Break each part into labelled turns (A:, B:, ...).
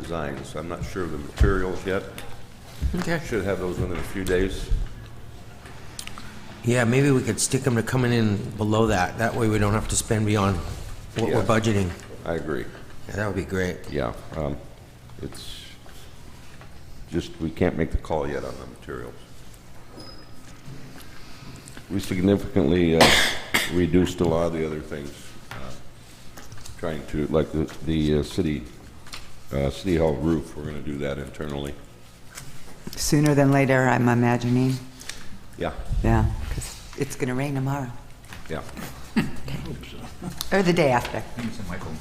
A: designs. I'm not sure of the materials yet.
B: Okay.
A: Should have those within a few days.
B: Yeah, maybe we could stick them to coming in below that. That way we don't have to spend beyond what we're
A: Yeah.
B: budgeting.
A: I agree.
B: Yeah, That would be great.
A: Yeah, um, it's just, we can't make the call yet on the materials. We significantly uh, reduced a lot of the other things, uh, trying to, like the, the uh, city, uh, city hall roof, we're gonna do that internally.
C: Sooner than later, I'm imagining.
A: Yeah,
C: Yeah, because it's going to rain tomorrow,
A: yeah.
C: or the day after.
D: Mr. Michael.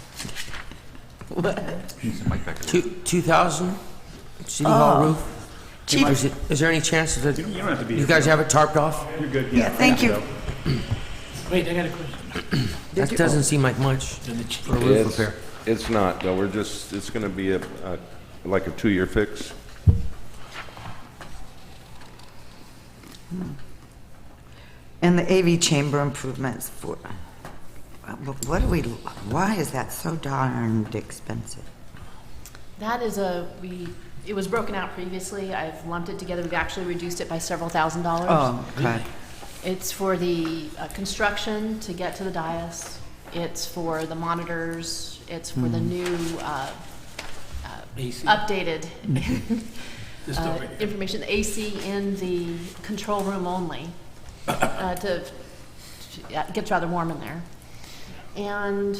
D: Mr. Mike Becker.
B: Two, two thousand, city hall
C: Oh.
B: roof?
C: Chief-
B: Is it- is there any chance that,
E: You don't have to be
B: you
E: here.
B: guys have it tarped off?
E: You're good.
C: Yeah, thank you.
F: Wait, I got a question.
B: That doesn't seem like much for a roof
A: It's-
B: repair.
A: It's not, though, we're just, it's gonna be a, a- like a two-year fix.
C: And the AV chamber improvements for, what do we, why is that so darned expensive?
G: That is a, we, it was broken out previously. I've lumped it together. We've actually reduced it by several thousand dollars.
C: Oh, okay.
G: It's for the uh, construction to get to the dais. It's for the monitors. It's for the new, uh, uh,
F: AC.
G: updated
F: Mm-hmm. This
G: uh,
F: over here.
G: information, the AC in the control room only, uh, to, to- yeah, it gets rather warm in there. And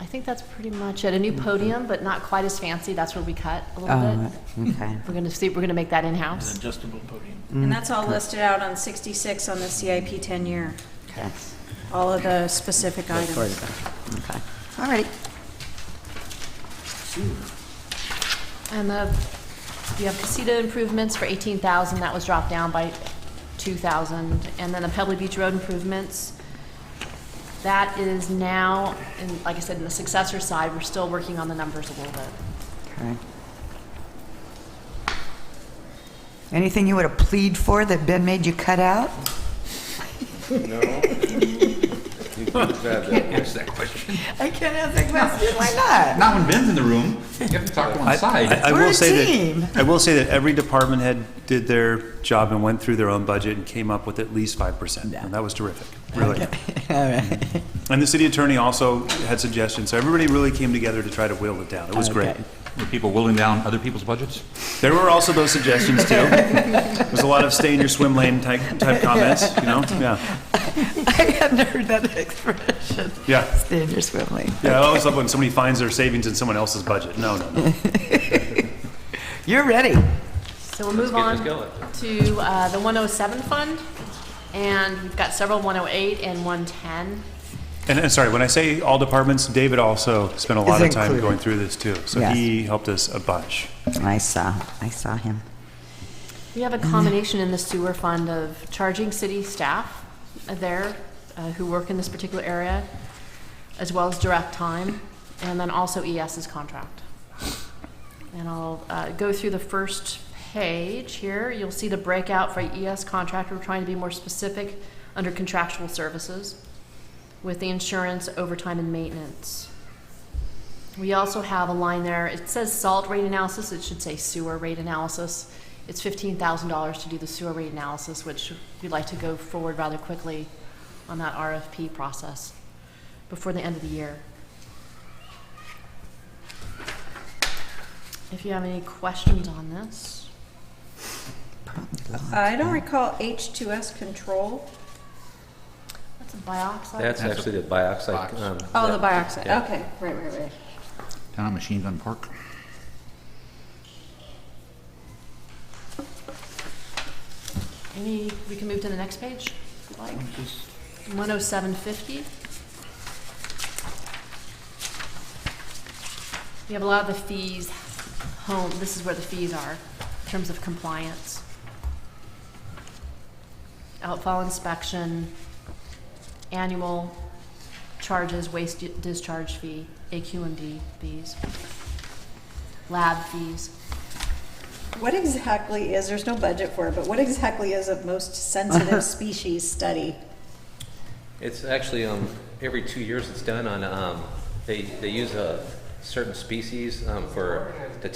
G: I think that's pretty much it. A new podium, but not quite as fancy. That's where we cut a little
C: Oh,
G: bit.
C: okay.
G: We're gonna see, we're gonna make that in-house.
F: Adjustable podium.
H: And that's all listed out on 66 on the CIP 10-year,
C: Yes.
H: all of the specific items.
C: Okay. All righty.
G: And the, you have casita improvements for eighteen thousand, that was dropped down by two thousand. And then the Pebbley Beach Road improvements, that is now, and like I said, in the successor side, we're still working on the numbers a little bit.
C: Okay. Anything you would have plead for that Ben made you cut out?
A: No? You can have that.
D: Answer that question.
C: I can't answer that question. Why
D: Not when Ben's in the room. You have to talk to one side.
I: I
C: We're
I: will
C: a
I: say
C: team.
I: That, I will say that every department head did their job and went through their own budget and came up with at least 5%. And that was terrific, really.
C: All right.
I: And the city attorney also had suggestions. So everybody really came together to try to whittle it down. It was great.
D: Were people whittling down other people's budgets?
I: There were also those suggestions, too. There was a lot of stay in your swim lane type, type comments, you know? Yeah.
C: I hadn't heard that expression.
I: Yeah.
C: Stay in your swim lane.
I: Yeah, I always love when somebody finds their savings in someone else's budget. No, no, no.
C: You're ready.
G: So we'll move on to uh, the one oh seven fund, and we've got several one oh eight and one ten.
I: And, and sorry, when I say all departments, David also spent a lot of time
C: included.
I: going through this, too. So
C: Yes.
I: he helped us a bunch.
C: I saw, I saw him.
G: We have a combination in the sewer fund of charging city staff there uh, who work in this particular area, as well as direct time, and then also ES's contract. And I'll uh, go through the first page here. You'll see the breakout for ES contract. We're trying to be more specific under contractual services with the insurance, overtime, and maintenance. We also have a line there, it says salt rate analysis, it should say sewer rate analysis. It's fifteen thousand dollars to do the sewer rate analysis, which we'd like to go forward rather quickly on that RFP process before the end of the year. If you have any questions on this,
H: I don't recall H2S control.
G: that's a bioxide.
B: That's
D: actually
B: the bioxide.
D: Box. um,
H: Oh, the bioxide, okay, right, right, right.
D: Down on Machine Gun Park?
G: Any, we can move to the next page, if you'd like. One oh seven fifty. We have a lot of the fees, home, this is where the fees are, in terms of compliance. Outfall inspection, annual charges, waste di- discharge fee, AQMD fees, lab fees.
H: What exactly is, there's no budget for it, but what exactly is a most sensitive species study?
J: It's actually, um, every two years it's done on, um, they, they use a certain species, um, for the